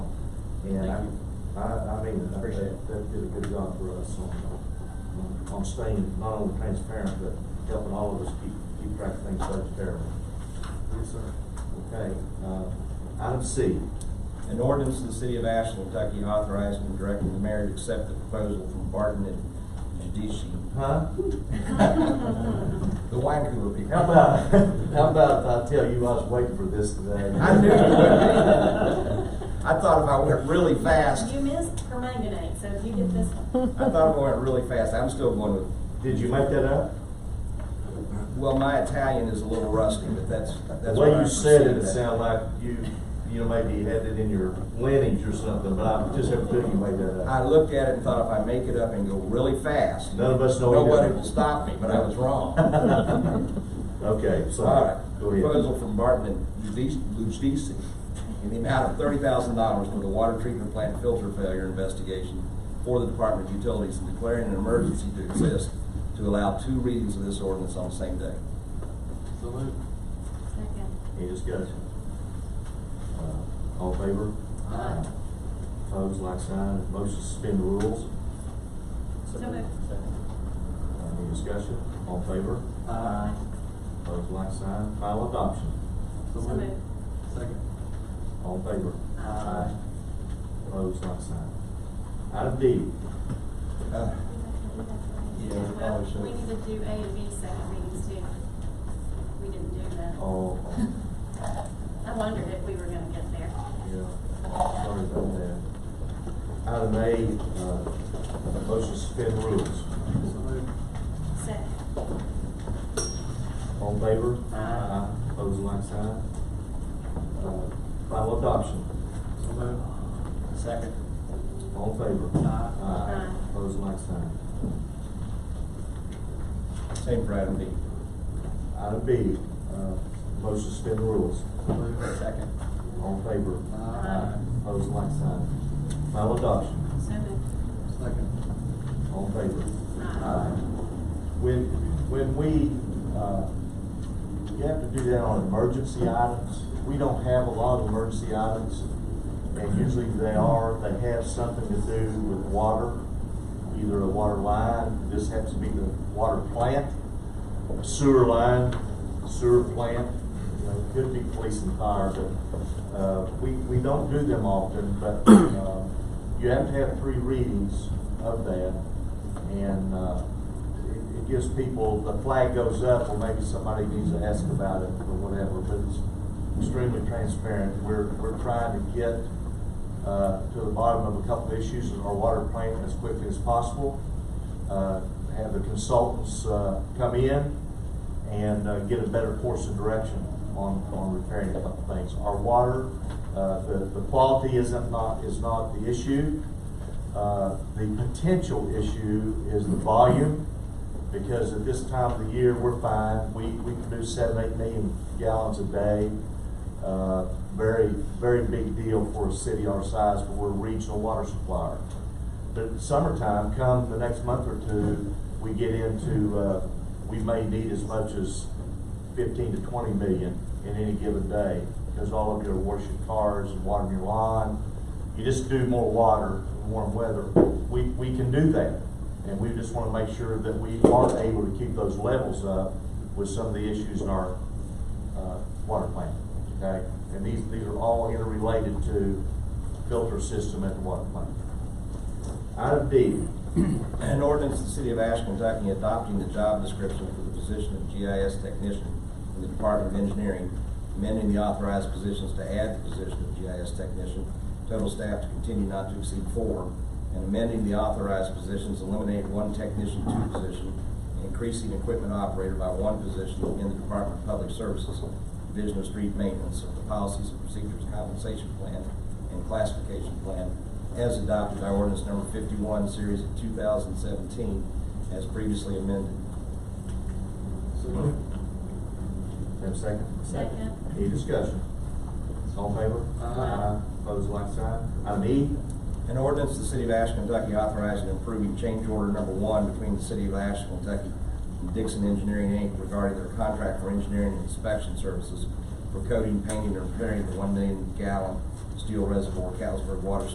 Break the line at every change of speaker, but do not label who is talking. Yeah, I, I I mean, I-
Appreciate
that, that
it.
did a good job for us on, on- on staying not only transparent, but helping all of us keep, keep track of things such as terrible.
Yes, sir.
Okay, uh, item C,
An ordinance of the city of Ashland, Kentucky authorizing and directing the mayor to accept the proposal from Barton and Judici.
huh?
The wine cooler people.
How about, how about if I tell you I was waiting for this today?
I knew you would I thought if I went really fast,
You missed permanganate, so if you get this one.
I thought if I went really fast, I'm still going with
Did you make that up?
Well, my Italian is a little rusty, but that's,
The
that's
way
what I
you said it,
perceive
it
that.
sounded like you, you know, maybe you had it in your lineage or something, but I just have a feeling you made that
I
up.
looked at it and thought if I make it up and go really fast,
None of us know. you
nobody
did it.
will stop me, but I was wrong.
Okay, so,
All right,
go ahead.
proposal from Barton and Lujdisi in the amount of thirty thousand dollars for the water treatment plant filter failure investigation for the Department of Utilities and declaring an emergency to exist to allow two readings of this ordinance on the same day.
So moved.
Second.
Any discussion? Uh, All in favor?
Aye.
Opposed, like sign, motion to suspend the rules,
So moved.
Uh, any discussion? All in favor?
Aye.
Opposed, like sign, final adoption,
So
So
moved.
moved.
Second.
all in favor?
Aye.
Opposed, like sign. Item D,
Uh, Yeah, we
Well,
probably should.
we need to do A and B second readings too. We didn't do that.
Oh.
all,
I wondered if we were gonna get there.
Yeah, sorry about that. Item A, uh, motion to suspend rules.
So moved.
Second.
All in favor?
Aye.
Opposed, like sign. Uh, Final adoption,
So moved.
Second.
all in favor?
Aye.
Aye.
Opposed, like sign.
Same for item B.
Item B, uh, motion to suspend rules,
So moved.
Second.
all in favor?
Aye.
Opposed, like sign. Final adoption,
So moved.
Second.
all in favor?
Aye.
Uh, When, when we, uh, you have to do that on emergency items. We don't have a lot of emergency items, and usually they are, they have something to do with water, either a water line, this happens to be the water plant, sewer line, sewer plant, you know, could be police and fire, but, uh, we, we don't do them often, but, uh, you have to have three readings of that, and, uh, it, it gives people, the flag goes up, or maybe somebody needs to ask about it, or whatever, but it's extremely transparent, we're, we're trying to get, uh, to the bottom of a couple of issues in our water plant as quickly as possible, uh, have the consultants, uh, come in and, uh, get a better course of direction on, on repairing a couple things. Our water, uh, the, the quality isn't not, is not the issue. Uh, the potential issue is the volume, because at this time of the year, we're fine. We, we produce seven, eight million gallons a day. Uh, very, very big deal for a city our size, but we're a regional water supplier. But summertime, come the next month or two, we get into, uh, we may need as much as fifteen to twenty million in any given day, because all of you are washing cars and watering your lawn. You just do more water in warm weather. We, we can do that, and we just want to make sure that we are able to keep those levels up with some of the issues in our, uh, water plant, okay? And these, these are all interrelated to filter system at the water plant. Item D,
An ordinance of the city of Ashland, Kentucky adopting the job description for the position of GIS technician in the Department of Engineering, amending the authorized positions to add the position of GIS technician, total staff to continue not to exceed four, and amending the authorized positions, eliminate one technician, two position, increasing equipment operator by one position in the Department of Public Services, Division of Street Maintenance of the Policies and Procedures Compensation Plan and Classification Plan as adopted by ordinance number fifty-one, series of two thousand seventeen, as previously amended.
So moved.
have a second?
Second.
Any discussion? All in favor?
Aye.
Opposed, like sign. Item E,
An ordinance of the City of Ashland, Kentucky authorizing and approving change order number one between the City of Ashland, Kentucky and Dixon Engineering Inc. regarding their contract for engineering and inspection services for coating, painting, and repairing the one million gallon steel reservoir Catlettsburg Water